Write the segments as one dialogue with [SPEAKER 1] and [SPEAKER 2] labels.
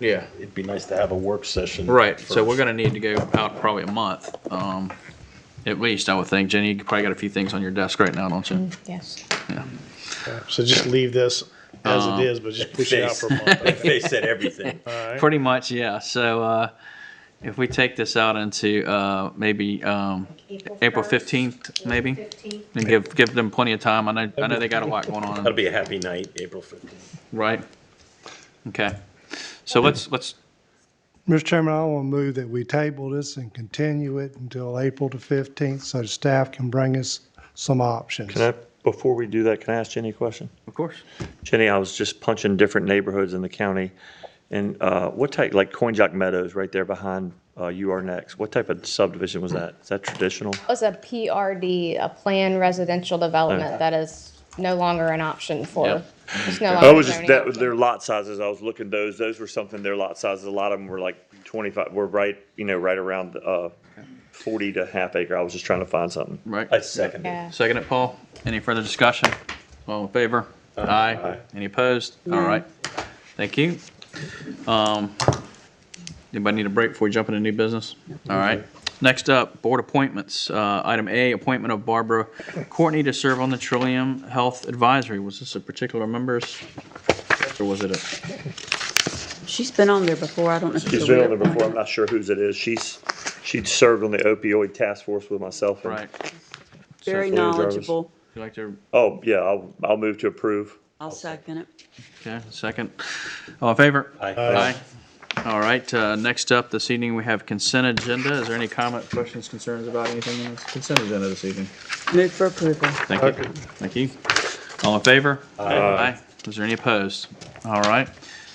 [SPEAKER 1] Yeah,
[SPEAKER 2] It'd be nice to have a work session.
[SPEAKER 1] right, so we're
[SPEAKER 2] first.
[SPEAKER 1] gonna need to go out probably a month, um, at least, I would think. Jenny, you probably got a few things on your desk right now, don't you?
[SPEAKER 3] Yes.
[SPEAKER 1] Yeah.
[SPEAKER 4] So just leave this as
[SPEAKER 5] Um,
[SPEAKER 4] it is, but just push it out for a month.
[SPEAKER 2] If They said everything.
[SPEAKER 4] All right.
[SPEAKER 1] Pretty much, yeah, so, uh, if we take this out into, uh, maybe, um, April fifteenth, maybe?
[SPEAKER 3] Fifteenth.
[SPEAKER 1] And give, give them plenty of time, I know, I know they got a lot going on.
[SPEAKER 2] That'll be a happy night, April fifteenth.
[SPEAKER 1] Right. Okay. So let's, let's,
[SPEAKER 6] Mr. Chairman, I want to move that we table this and continue it until April the 15th so the staff can bring us some options.
[SPEAKER 5] Can I, before we do that, can I ask Jenny a question?
[SPEAKER 1] of course.
[SPEAKER 5] Jenny, I was just punching different neighborhoods in the county. And uh, what type, like Coinjock Meadows, right there behind uh, You Are Next, what type of subdivision was that? Is that traditional?
[SPEAKER 3] Was a PRD, a planned residential development that is no longer an option for.
[SPEAKER 1] Yep.
[SPEAKER 3] it's no
[SPEAKER 5] I
[SPEAKER 3] longer
[SPEAKER 5] was just,
[SPEAKER 3] zoning
[SPEAKER 5] that,
[SPEAKER 3] option.
[SPEAKER 5] their lot sizes, I was looking, those, those were something, their lot sizes, a lot of them were like twenty-five, were right, you know, right around uh, forty to half acre. I was just trying to find something.
[SPEAKER 1] Right.
[SPEAKER 2] I second it.
[SPEAKER 3] Yeah.
[SPEAKER 1] Second it, Paul. Any further discussion? All in favor? Aye. Any opposed? All right. Thank you. Um, Anybody need a break before we jump into new business? All right. Next up, board appointments. Uh, Item A, appointment of Barbara Courtney to serve on the Trillium Health Advisory. Was this a particular member's? Or was it a,
[SPEAKER 7] She's been on there before, I don't know. if
[SPEAKER 5] She's
[SPEAKER 7] it's a
[SPEAKER 5] been on there
[SPEAKER 7] reappointment.
[SPEAKER 5] before, I'm not sure whose it is. She's, she served on the opioid task force with myself. and-
[SPEAKER 1] right?
[SPEAKER 7] Very
[SPEAKER 5] Blue Jarvis.
[SPEAKER 7] knowledgeable.
[SPEAKER 1] You like to,
[SPEAKER 5] Oh, yeah, I'll, I'll move to approve.
[SPEAKER 7] I'll second it.
[SPEAKER 1] okay, second. All in favor?
[SPEAKER 2] Aye.
[SPEAKER 1] All right, uh, next up this evening, we have consent agenda. Is there any comment, questions, concerns about anything on the consent agenda this evening?
[SPEAKER 7] Move for approval.
[SPEAKER 1] Thank you. Thank you. All in favor? Aye. Is there any opposed? All right.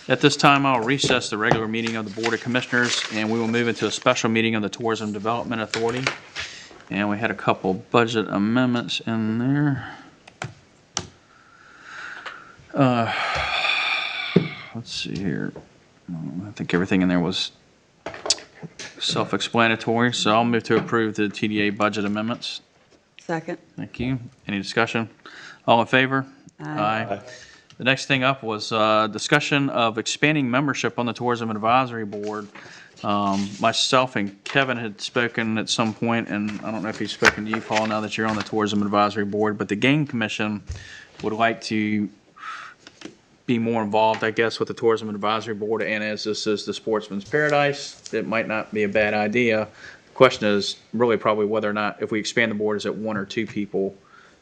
[SPEAKER 1] At this time, I'll recess the regular meeting of the Board of Commissioners, and we will move into a special meeting of the Tourism Development Authority. And we had a couple budget amendments in there. Uh, Let's see here. Um, I think everything in there was self-explanatory, so I'll move to approve the TDA budget amendments.
[SPEAKER 7] Second.
[SPEAKER 1] Thank you. Any discussion? All in favor? Aye. The next thing up was uh, discussion of expanding membership on the Tourism Advisory Board. Um, Myself and Kevin had spoken at some point, and I don't know if he's spoken to you, Paul, now that you're on the Tourism Advisory Board, but the Game Commission would like to be more involved, I guess, with the Tourism Advisory Board, and as this is the Sportsman's Paradise, it might not be a bad idea. The Question is really probably whether or not, if we expand the board, is it one or two people?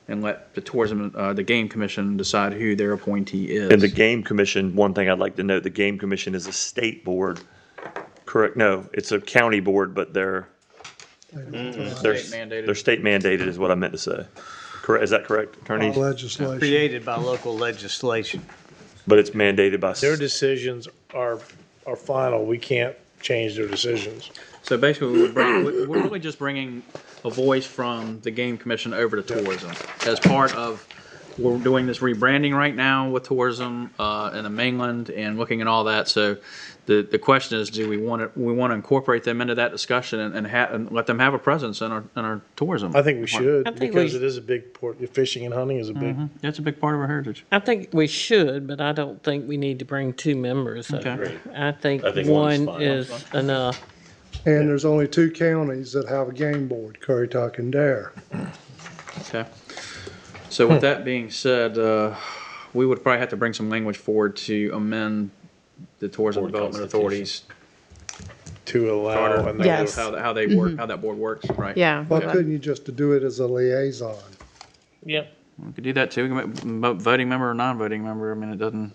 [SPEAKER 1] And let the Tourism, uh, the Game Commission decide who their appointee is.
[SPEAKER 5] And the Game Commission, one thing I'd like to note, the Game Commission is a state board, correct? No, it's a county board, but they're, they're,
[SPEAKER 1] mandated.
[SPEAKER 5] they're state mandated is what I meant to say. Correct, is that correct, attorney?
[SPEAKER 6] Legislation.
[SPEAKER 8] created by local legislation.
[SPEAKER 5] But it's mandated by, s-
[SPEAKER 4] Their decisions are, are final. We can't change their decisions.
[SPEAKER 1] So basically, we're, bring, we're we're really just bringing a voice from the game commission over to tourism as part of we're doing this rebranding right now with tourism uh, in the mainland and looking at all that. So the the question is, do we want to we want to incorporate them into that discussion and and, ha- and let them have a presence in our in our tourism?
[SPEAKER 4] I think we should
[SPEAKER 9] I think
[SPEAKER 4] because
[SPEAKER 9] we- Mm-hmm.
[SPEAKER 4] it is a big port. Fishing and hunting is a big.
[SPEAKER 1] that's a big part of our heritage.
[SPEAKER 9] I think we should, but I don't think we need to bring two members over. I think
[SPEAKER 2] I think one's
[SPEAKER 9] one
[SPEAKER 2] fine.
[SPEAKER 9] is enough.
[SPEAKER 6] And there's only two counties that have a game board, Currituck and Dare.
[SPEAKER 1] Okay. So with that being said, uh, we would probably have to bring some language forward to amend the tourism
[SPEAKER 2] Board
[SPEAKER 1] development
[SPEAKER 2] constitution.
[SPEAKER 1] authorities
[SPEAKER 4] to allow.
[SPEAKER 1] charter,
[SPEAKER 4] another-
[SPEAKER 3] Yes. Mm-hmm.
[SPEAKER 1] how, how they work, how that board works, right?
[SPEAKER 3] Yeah.
[SPEAKER 6] Why couldn't you just do it as a liaison?
[SPEAKER 9] Yep.
[SPEAKER 1] We could do that too, We can make mo- voting member or non-voting member, I mean, it doesn't.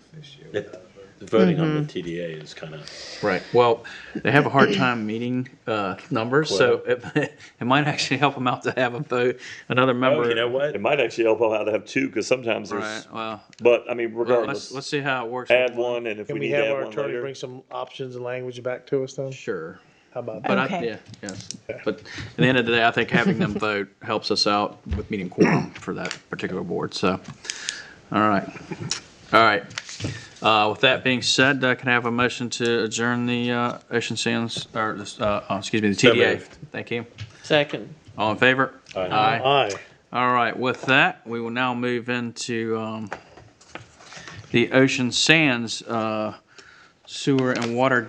[SPEAKER 2] The Voting on the
[SPEAKER 1] Mm-hmm.
[SPEAKER 2] TDA is kind of,
[SPEAKER 1] Right. Well, they have a hard time meeting, uh, numbers, so it, it might actually help them out to have a vote, another member.
[SPEAKER 2] you know what?
[SPEAKER 5] it might actually help out to have two, because sometimes
[SPEAKER 1] Right,
[SPEAKER 5] there's,
[SPEAKER 1] well,
[SPEAKER 5] but I mean,
[SPEAKER 1] let's,
[SPEAKER 5] regardless,
[SPEAKER 1] let's see how it works.
[SPEAKER 5] add one, and if
[SPEAKER 4] Can
[SPEAKER 5] we
[SPEAKER 4] we
[SPEAKER 5] need to
[SPEAKER 4] have
[SPEAKER 5] add
[SPEAKER 4] our
[SPEAKER 5] one
[SPEAKER 4] attorney
[SPEAKER 5] later.
[SPEAKER 4] bring some options and language back to us then?
[SPEAKER 1] Sure.
[SPEAKER 4] How about that?
[SPEAKER 1] But I,
[SPEAKER 3] Okay.
[SPEAKER 1] yeah, yes. But at the end of the day, I think having them vote helps us out with meeting quorum for that particular board, so. All right. All right. Uh, with that being said, uh, can I have a motion to adjourn the, uh, Ocean Sands, or, this, uh, oh, excuse me, the
[SPEAKER 2] So
[SPEAKER 1] TDA?
[SPEAKER 2] moved.
[SPEAKER 1] Thank you.
[SPEAKER 9] Second.
[SPEAKER 1] All in favor? Aye.
[SPEAKER 4] Aye.
[SPEAKER 1] All right, with that, we will now move into, um, the Ocean Sands, uh, Sewer and Water